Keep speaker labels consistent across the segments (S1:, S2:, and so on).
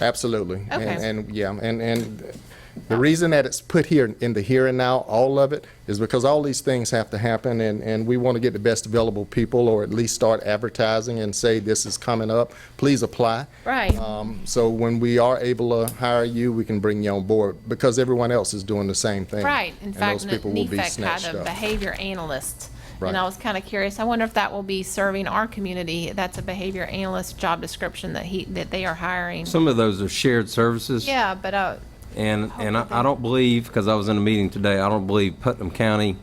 S1: Absolutely. And,
S2: Okay.
S1: and yeah, and, and the reason that it's put here in the here and now, all of it, is because all these things have to happen and, and we want to get the best available people or at least start advertising and say, this is coming up, please apply.
S2: Right.
S1: Um, so when we are able to hire you, we can bring you on board because everyone else is doing the same thing.
S2: Right, in
S1: And
S2: fact, E
S1: those people will be
S2: NEFAC
S1: snatched
S2: had a
S1: up.
S2: behavior analyst.
S1: Right.
S2: And I was kind of curious, I wonder if that will be serving our community, that's a behavior analyst job description that he, that they are hiring.
S3: Some of those are shared services.
S2: Yeah, but, uh,
S3: And, and I I don't believe, because I was in a meeting today, I don't believe Putnam County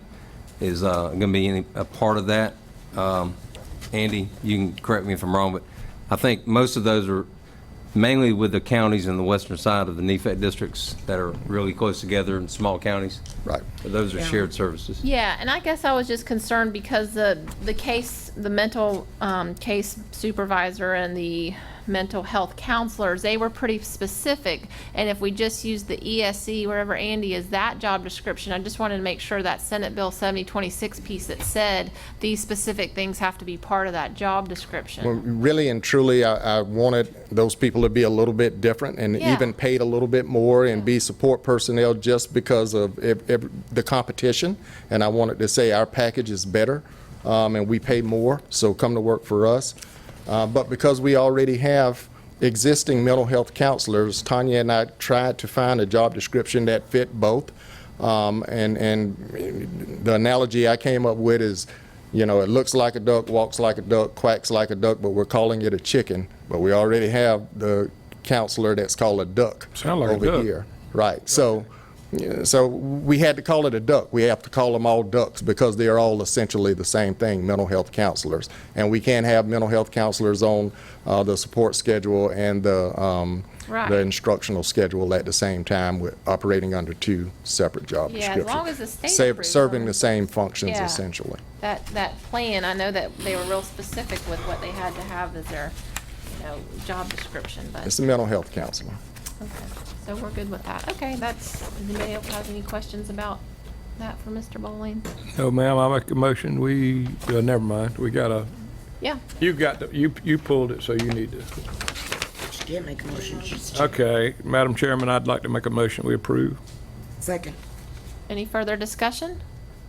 S3: is going to be any, a part of that. Um, Andy, you can correct me if I'm wrong, but I think most of those are mainly with the counties in the western side of the NEFAC districts that are really close together in small counties.
S1: Right.
S3: But Those are shared services.
S2: yeah, and I guess I was just concerned because the, the case, the mental, um, case supervisor and the mental health counselors, they were pretty specific. And if we just use the ESC, wherever Andy is, that job description, I just wanted to make sure that Senate Bill seventy twenty-six piece that said these specific things have to be part of that job description.
S1: Well, really and truly, I, I wanted those people to be a little bit different and
S2: Yeah.
S1: even paid a little bit more and be support personnel just because of ev- ev- the competition. And I wanted to say our package is better, um, and we pay more, so come to work for us. Uh, but because we already have existing mental health counselors, Tanya and I tried to find a job description that fit both. Um, and, and the analogy I came up with is, you know, it looks like a duck, walks like a duck, quacks like a duck, but we're calling it a chicken. But we already have the counselor that's called a duck
S4: Sound like a
S1: over
S4: duck.
S1: here, right? So, yeah, so we had to call it a duck. We have to call them all ducks because they are all essentially the same thing: mental health counselors. And we can't have mental health counselors on uh, the support schedule and the um,
S2: Right.
S1: the instructional schedule at the same time. We're operating under two separate job
S2: Yeah, as
S1: descriptions,
S2: long as the state
S1: Serv-
S2: approves
S1: serving
S2: them.
S1: the same functions
S2: Yeah.
S1: essentially.
S2: that, that plan, I know that they were real specific with what they had to have as their, you know, job description, but,
S1: It's a mental health counselor.
S2: okay. So we're good with that. Okay, that's, anybody else has any questions about that for Mr. Bowling?
S4: No, Oh, ma'am, I make a motion, we, uh, never mind, we got a,
S2: Yeah,
S4: you got, the- you, you pulled it, so you need to.
S5: She did make a motion, she's
S4: Okay, Madam Chairman, I'd like to make a motion, we approve.
S5: second.
S2: any further discussion?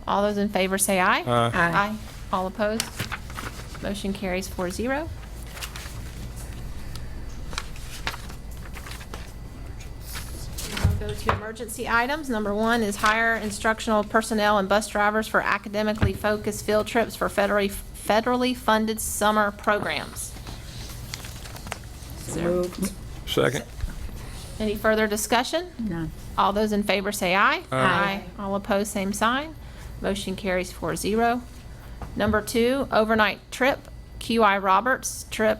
S2: All those in favor say aye.
S4: Aye.
S2: Aye. All opposed? Motion carries four zero. We'll go to emergency items. Number one is hire instructional personnel and bus drivers for academically focused field trips for federally, federally funded summer programs.
S5: So moved.
S4: Second,
S2: Any further discussion? None. All those in favor say aye. Aye. All opposed, same sign. Motion carries 4-0. Number two, overnight trip, QI Roberts trip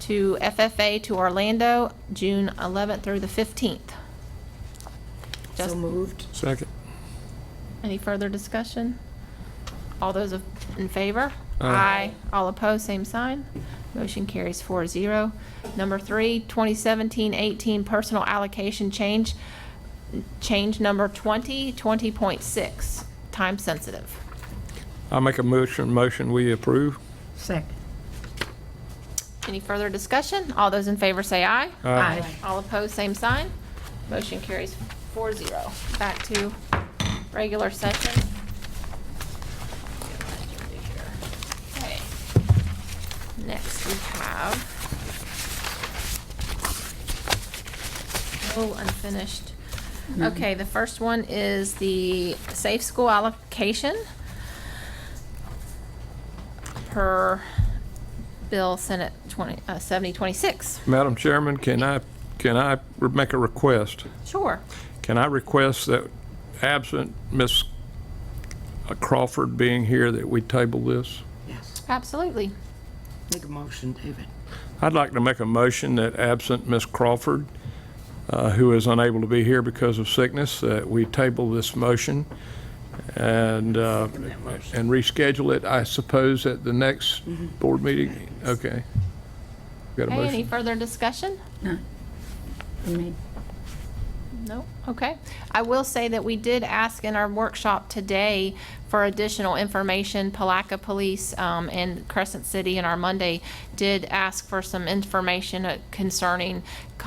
S2: to FFA to Orlando, June 11th through the 15th.
S5: So
S2: Just-
S5: moved.
S4: second.
S2: Any further discussion? All those of- in favor? Aye. All opposed, same sign. Motion carries 4-0. Number three, 2017-18 personal allocation change, change number 20, 20.6, time sensitive.
S4: I make a motion, motion, we approve.
S5: Second.
S2: Any further discussion? All those in favor say aye.
S5: Aye.
S2: All opposed, same sign. Motion carries 4-0. Back to regular session. Okay. Next, we have no Oh, unfinished. Okay, the first one is the safe school allocation per Bill Senate 20, uh, 7026.
S4: Madam Chairman, can I, can I re- make a request?
S2: Sure.
S4: Can I request that absent Miss Crawford being here, that we table this?
S5: Yes.
S2: Absolutely.
S5: Make a motion, David.
S4: I'd like to make a motion that absent Miss Crawford, uh, who is unable to be here because of sickness, that we table this motion and, uh, and reschedule it, I suppose, at the next board meeting? Okay. Got a
S2: Okay, any
S4: motion?
S2: further discussion?
S5: Me.
S2: No? Okay. I will say that we did ask in our workshop today for additional information. Palaca Police um, and Crescent City and our Monday did ask for some information uh, concerning